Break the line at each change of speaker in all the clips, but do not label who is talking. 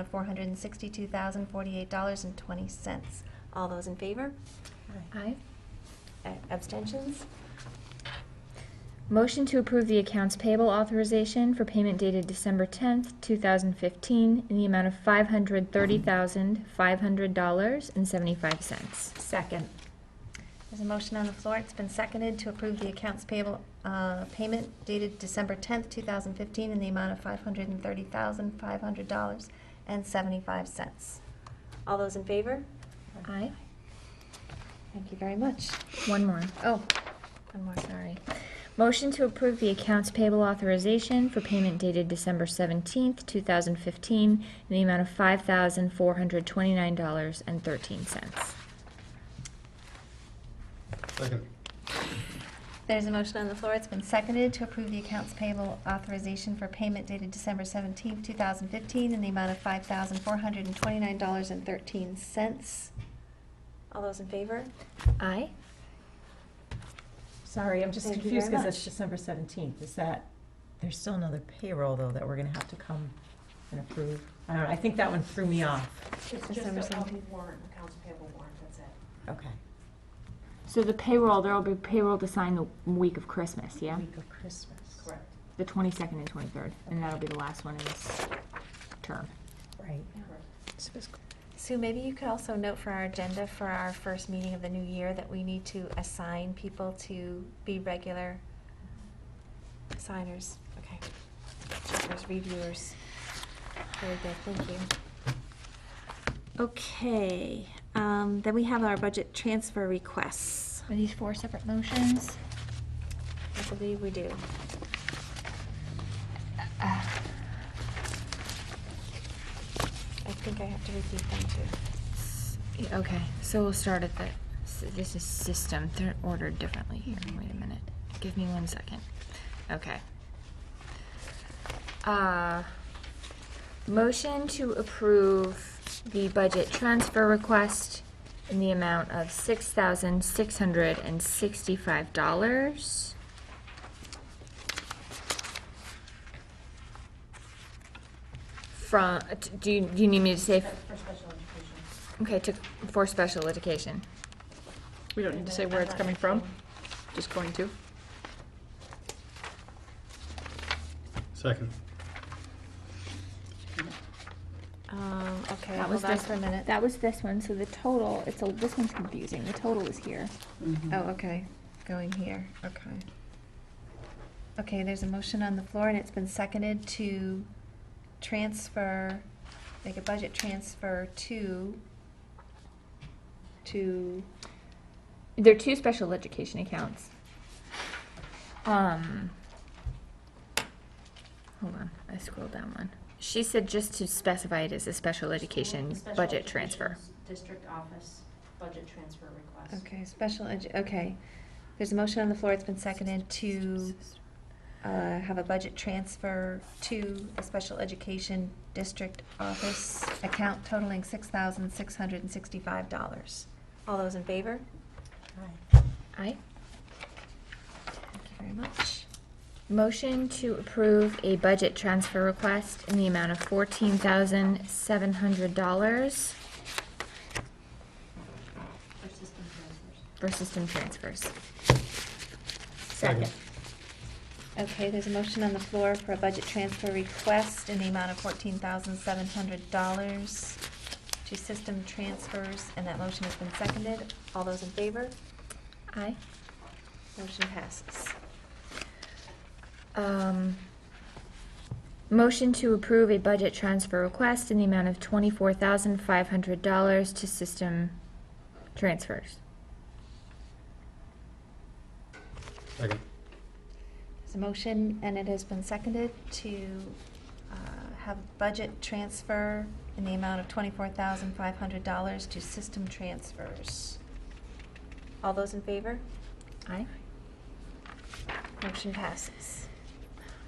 of $462,048.20. All those in favor?
Aye.
Uh, Abstentions?
Motion to approve the accounts payable authorization for payment dated December 10th, 2015, in the amount of $530,500.75.
Second.
There's a motion on the floor. It's been seconded to approve the accounts payable uh, payment dated December 10th, 2015, in the amount of $530,500.75. All those in favor?
Aye.
Thank you very much.
One more.
Oh, one more, sorry.
Sorry. Motion to approve the accounts payable authorization for payment dated December 17th, 2015, in the amount of $5,429.13.
Second.
There's a motion on the floor. It's been seconded to approve the accounts payable authorization for payment dated December 17, 2015, in the amount of $5,429.13. All those in favor?
Aye.
Sorry, I'm just
Thank you
confused
very
because it's
much.
December 17th. Is that, there's still another payroll, though, that we're going to have to come and approve? I don't know, I think that one threw me off.
It's just
December
a um,
17th.
warrant, accounts payable warrant, that's it.
Okay.
So the payroll, there will be payroll to sign the week of Christmas, yeah?
Week of Christmas.
Correct.
The 22nd and 23rd, and that'll be the last one in this term.
Right.
Correct.
Sue, maybe you could also note for our agenda for our first meeting of the new year that we need to assign people to be regular signers. Okay. Checkers, reviewers. Very good, thank you. Okay, um, then we have our budget transfer requests.
Are these four separate motions?
I believe we do. I think I have to repeat them too.
Yeah, Okay, so we'll start at the, s- this is system, they're ordered differently here, wait a minute, give me one second, okay. Uh, motion to approve the budget transfer request in the amount of six thousand six hundred and sixty-five dollars. From, uh, t- do you, do you need me to say?
For special education.
Okay, took for special education.
We don't need to say where it's coming from, just going to.
Second.
Um, okay,
That was
hold on
this-
for a minute.
That was this one, so the total, it's a, this one's confusing, the total is here.
Oh, okay, going here, okay. Okay, there's a motion on the floor, and it's been seconded to transfer, make a budget transfer to, to,
They're two special education accounts. Um, hold on, I scrolled down one. She said just to specify it as a special education
Special
budget
education's
transfer.
District office budget transfer request.
okay, special edu, okay. There's a motion on the floor, it's been seconded to, uh, have a budget transfer to the special education district office account totaling six thousand six hundred and sixty-five dollars. All those in favor?
Aye.
Aye.
Thank you very much.
Motion to approve a budget transfer request in the amount of fourteen thousand seven hundred dollars
For system transfers.
for system transfers.
Second.
Okay, there's a motion on the floor for a budget transfer request in the amount of fourteen thousand seven hundred dollars to system transfers, and that motion has been seconded. All those in favor?
Aye.
Motion passes.
Um, motion to approve a budget transfer request in the amount of twenty-four thousand five hundred dollars to system transfers.
Second.
There's a motion, and it has been seconded to uh, have a budget transfer in the amount of twenty-four thousand five hundred dollars to system transfers. All those in favor?
Aye.
Motion passes.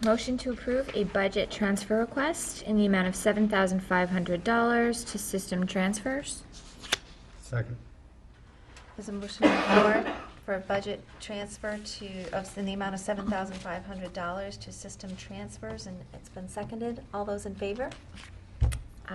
Motion to approve a budget transfer request in the amount of seven thousand five hundred dollars to system transfers.
Second.
There's a motion on the floor for a budget transfer to, of, in the amount of seven thousand five hundred dollars to system transfers, and it's been seconded. All those in favor?